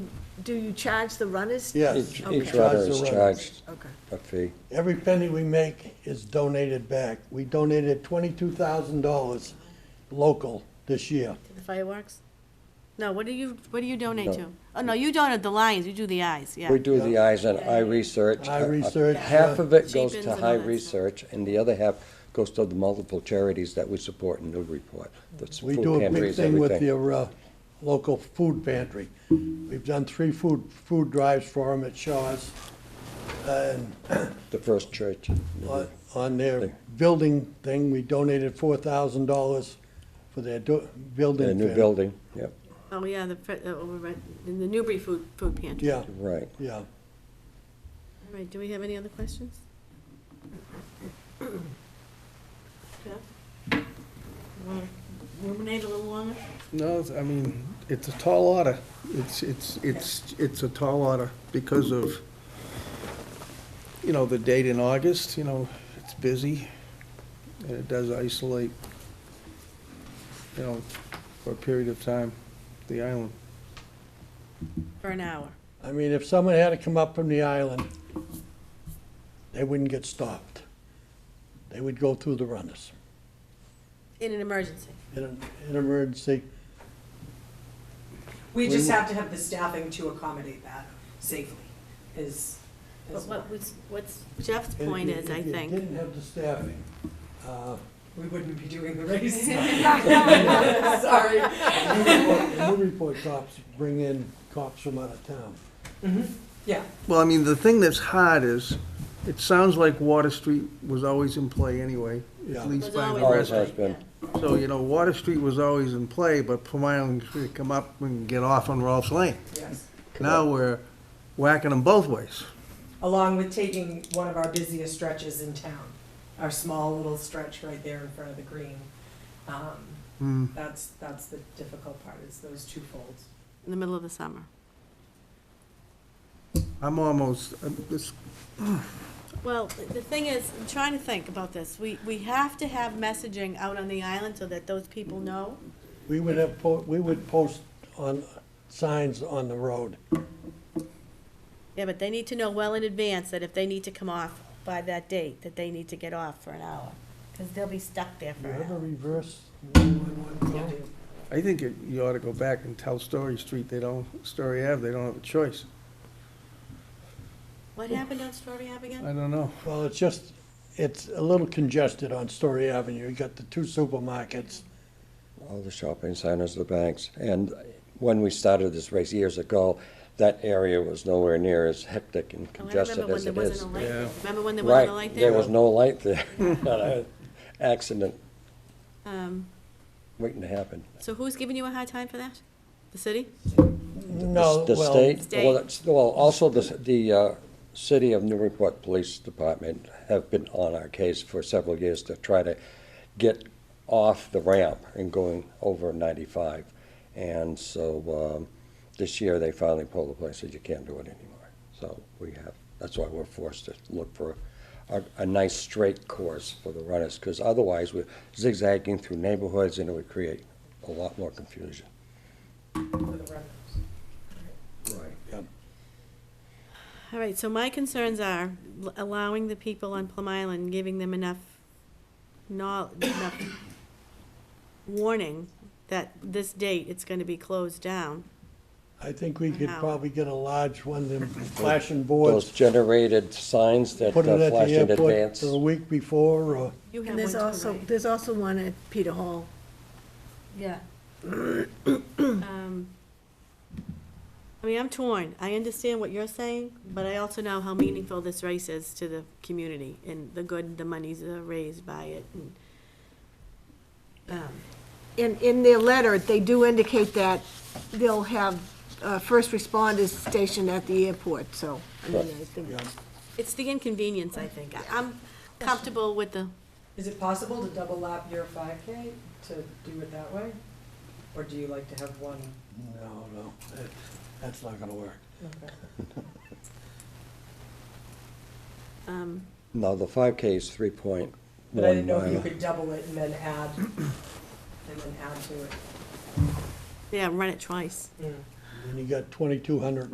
do you charge the runners? Yes. Each, Okay. we Each charge Charge each runner the is runners. charged Okay, a fee. Every penny we make is donated back. We donated twenty-two thousand dollars local this year. To the fireworks? No, what do you, what do you donate No. to? Oh, no, you donate the lions, you do the eyes, yeah. We do the eyes and eye research. Eye Uh, uh, research, Half uh, of it goes Cheapens to and all high that stuff. research, and the other half goes to the multiple charities that we support in Newburyport. That's We food do a big pantries, thing with everything. your, uh, local food pantry. We've done three food, food drives for them at Shaw's. And The first church. on- on their Thing. building thing, we donated four thousand dollars for their do- building. The new thing. building, yep, Oh, yeah, the, fr- uh, over right, in the Newbury Food, Food Pantry. Yeah, right. yeah. All right, do we have any other questions? Jeff? Want to ruminate a little longer? No, it's- I mean, it's a tall order. It's, it's, it's, it's a tall order because of, you know, the date in August, you know, it's busy, and it does isolate, you know, for a period of time, the island. For an hour. I mean, if someone had to come up from the island, they wouldn't get stopped. They would go through the runners. In an emergency. In an, in an emergency, We just have to have the staffing to accommodate that safely is, But is what was, what's Jeff's And point if you- is, I if you think, didn't have the staffing, uh, we wouldn't be doing the race. Sorry. Newburyport- the Newburyport cops bring in cops from out of town. Yeah, Well, I mean, the thing that's hard is, it sounds like Water Street was always in play anyway, Yeah. at least was by always. the Always rest. has been. So, you know, Water Street was always in play, but Plum Island could come up and get off on Rolfs Lane. yes. Now we're whacking them both ways. Along with taking one of our busiest stretches in town, our small little stretch right there in front of the green. Um, Hmm. That's, that's the difficult part is those two folds. in the middle of the summer. I'm almost, I'm- this- Well, th- the thing is, I'm trying to think about this. We, we have to have messaging out on the island so that those people know. We would have, po- we would post on, signs on the road. Yeah, but they need to know well in advance that if they need to come off by that date, that they need to get off for an hour. Because they'll be stuck there Do for you an have a hour. reverse 911 call? I think it- you ought to go back and tell Story Street they don't, Story Ave, they don't have a choice. What happened on Strawberry Ave again? I don't know. Well, it's just, it's a little congested on Story Avenue. You got the two supermarkets. all the shopping centers, the banks. And when we started this race years ago, that area was nowhere near as hectic and Oh, I remember congested when as there it wasn't is. a light. Yeah. Remember when there wasn't a Right, light there there? was no light there. An Accident Um, waiting to happen. so who's giving you a hard time for that? The city? No, The well, state, State. well, it's- well, also the, the uh, city of Newburyport Police Department have been on our case for several years to try to get off the ramp and going over 95. And so um, this year, they finally pulled the plug and said, you can't do it anymore. So we have, that's why we're forced to look for a, a nice straight course for the runners, because otherwise, we're zigzagging through neighborhoods, and it would create a lot more confusion. For the runners. Right. All right, so my concerns are l- allowing the people on Plum Island, giving them enough know, enough warning that this date it's gonna be closed down. I think we could Wow. probably get a large one, them flashing those boards. generated signs that Put it uh, at flash the in airport advance. the week before, or, You and have one there's too, also, right? there's also one at Peter Hall. Yeah. Um, I mean, I'm torn. I understand what you're saying, but I also know how meaningful this race is to the community and the good, the monies that are raised by it and, um, In, in their letter, they do indicate that they'll have uh, first responders stationed at the airport, so, I mean, I think, it's the inconvenience, I think. I- I'm comfortable with the, Is it possible to double lap your five K to do it that way? Or do you like to have one? no, no, that- that's not gonna work. um, No, the five K is three point But I one didn't know if you mile. could double it and then add, and then add to it. yeah, run it twice. And you got twenty-two hundred